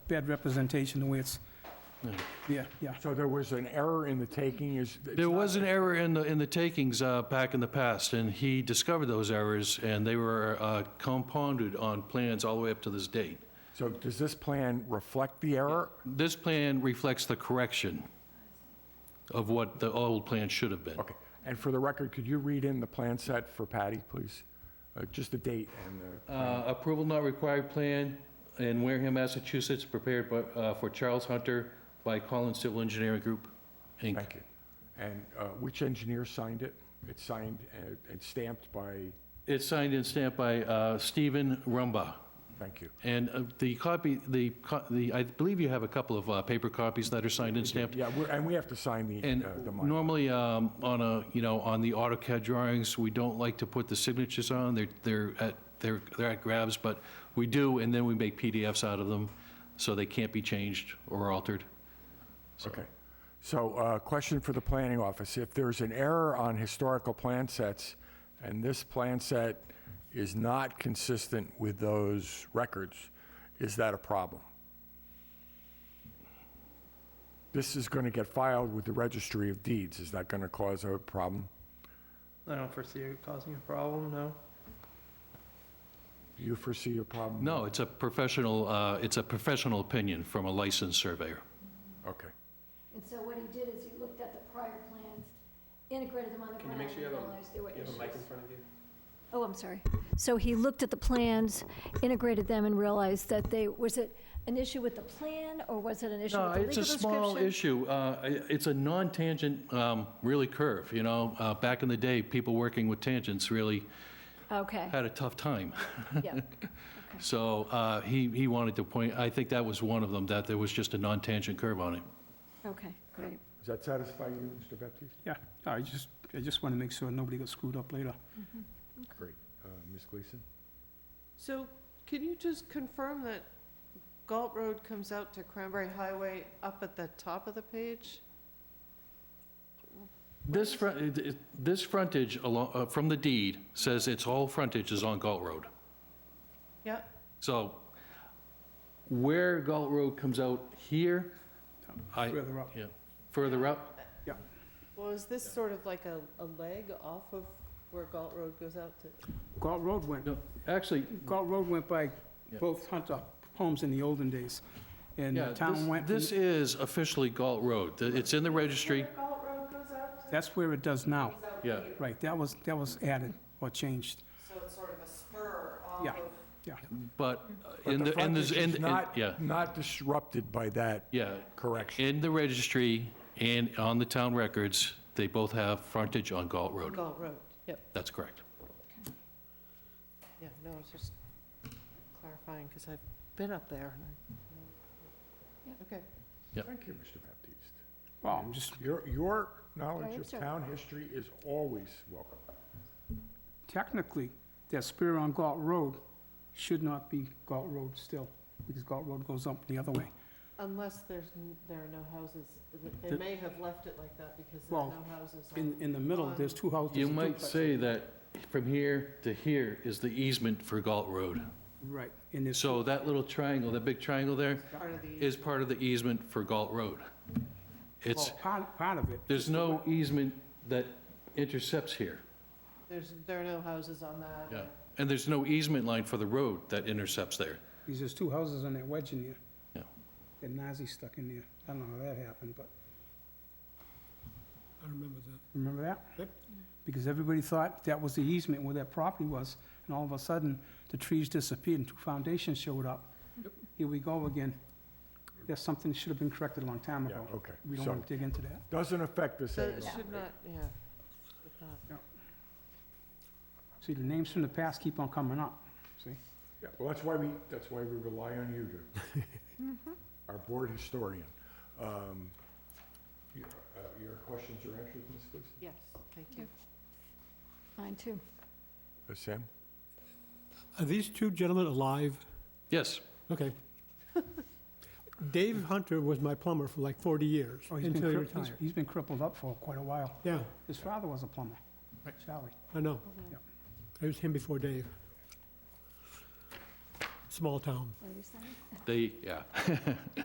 bad representation the way it's, yeah, yeah. So there was an error in the taking, is? it's There not- was an error in the, in the takings uh, back in the past, and he discovered those errors, and they were uh, compounded on plans all the way up to this date. So does this plan reflect the error? This plan reflects the correction of what the old plan should have been. Okay, and for the record, could you read in the plan set for Patty, please? Uh, Just the date and the, Uh, Approval not required plan in Wareham, Massachusetts, prepared by, uh, for Charles Hunter by Collins Civil Engineering Group, Inc. thank you. And uh, which engineer signed it? It's signed and- and stamped by, It's signed and stamped by uh, Stephen Rumba. thank you. And uh, the copy, the, co- the, I believe you have a couple of uh, paper copies that are signed and stamped. Yeah, we're- and we have to sign the, And uh, the mine. normally, um, on a, you know, on the AutoCAD drawings, we don't like to put the signatures on, they're, they're at, they're, they're at grabs, but we do, and then we make PDFs out of them, so they can't be changed or altered. Okay. So, uh, question for the planning office. If there's an error on historical plan sets, and this plan set is not consistent with those records, is that a problem? This is going to get filed with the Registry of Deeds. Is that going to cause a problem? I don't foresee it causing a problem, no. Do you foresee a problem? No, it's a professional, uh, it's a professional opinion from a licensed surveyor. Okay. And so what he did is he looked at the prior plans, integrated them on the Can you ground, make sure you have a- realized there were You have a mic in issues. front of you? Oh, I'm sorry. So he looked at the plans, integrated them, and realized that they, was it an issue with the plan, or was it an issue No, with the legal it's description? a small issue. Uh, i- It's a non-tangent, um, really curve, you know? Uh, Back in the day, people working with tangents really Okay, had a tough time. yeah. So uh, he he wanted to point, I think that was one of them, that there was just a non-tangent curve on it. Okay, great. Does that satisfy you, Mr. Baptiste? Yeah, I just, I just want to make sure nobody got screwed up later. Great. Uh, Ms. Gleason? So can you just confirm that Galt Road comes out to Cranberry Highway up at the top of the page? This front, it- it- this frontage alo- uh, from the deed says its whole frontage is on Galt Road. Yeah, So where Galt Road comes out here, I, Further up. yeah, further up, well, is this sort of like a, a leg off of where Galt Road goes out to? Galt Road went, no, actually, Galt Road went by Yeah. both Hunter homes in the olden days, and yeah, the town this- went, from- this is officially Galt Road. Th- It's in the registry, Galt Road goes out to? that's where it does now. yeah. Right, that was, that was added or changed. So it's sort of a spur off Yeah. of. But uh, But in the, in frontage the, is in- in- not- yeah, Not disrupted by that yeah. correction. In the registry and on the town records, they both have frontage on Galt Road. Galt Road, yep, That's correct. yeah, no, it's just clarifying, because I've been up there and Yep. I. Okay, Thank you, Mr. Baptiste. Well, I'm just, Your, your knowledge am, of sir. town history is always welcome. technically, that spur on Galt Road should not be Galt Road still, because Galt Road goes up the other way. unless there's, n- there are no houses, they The- may have left it like that because there are Well, no houses on. In, in the middle, there's two houses. You and might duplexes. say that from here to here is the easement for Galt Road. Right, and there's, So that little triangle, that big triangle there, part of the- is part of the easement for Galt Road. well, It's, part, part of it. there's no easement that intercepts here, There's, there are no houses on that. yeah. And there's no easement line for the road that intercepts there. Because there's two houses on that wedge in there. Yeah. That Nazi stuck in there. I don't know how that happened, but. I remember that. Remember that? Yep. Because everybody thought that was the easement where that property was, and all of a sudden, the trees disappeared and two foundations showed up. Here we go again. That's something that should have been corrected a long time Yeah, ago. okay. We don't So, want to dig into that. doesn't affect this So at it all. should not, yeah, should not. See, the names from the past keep on coming up, see? Yeah, well, that's why we, that's why we rely on you to, our board historian. Um, you- uh, Your questions or answers, Ms. Gleason? yes, thank you. Mine too. Uh, Sam? Are these two gentlemen alive? Yes, Okay. Dave Hunter was my plumber for like 40 years, Oh, he's been until he cri- he's- retired. He's been crippled up for quite a while. Yeah, His father was a plumber, Charlie. I know. It was him before Dave. small town. What are you saying? They, yeah.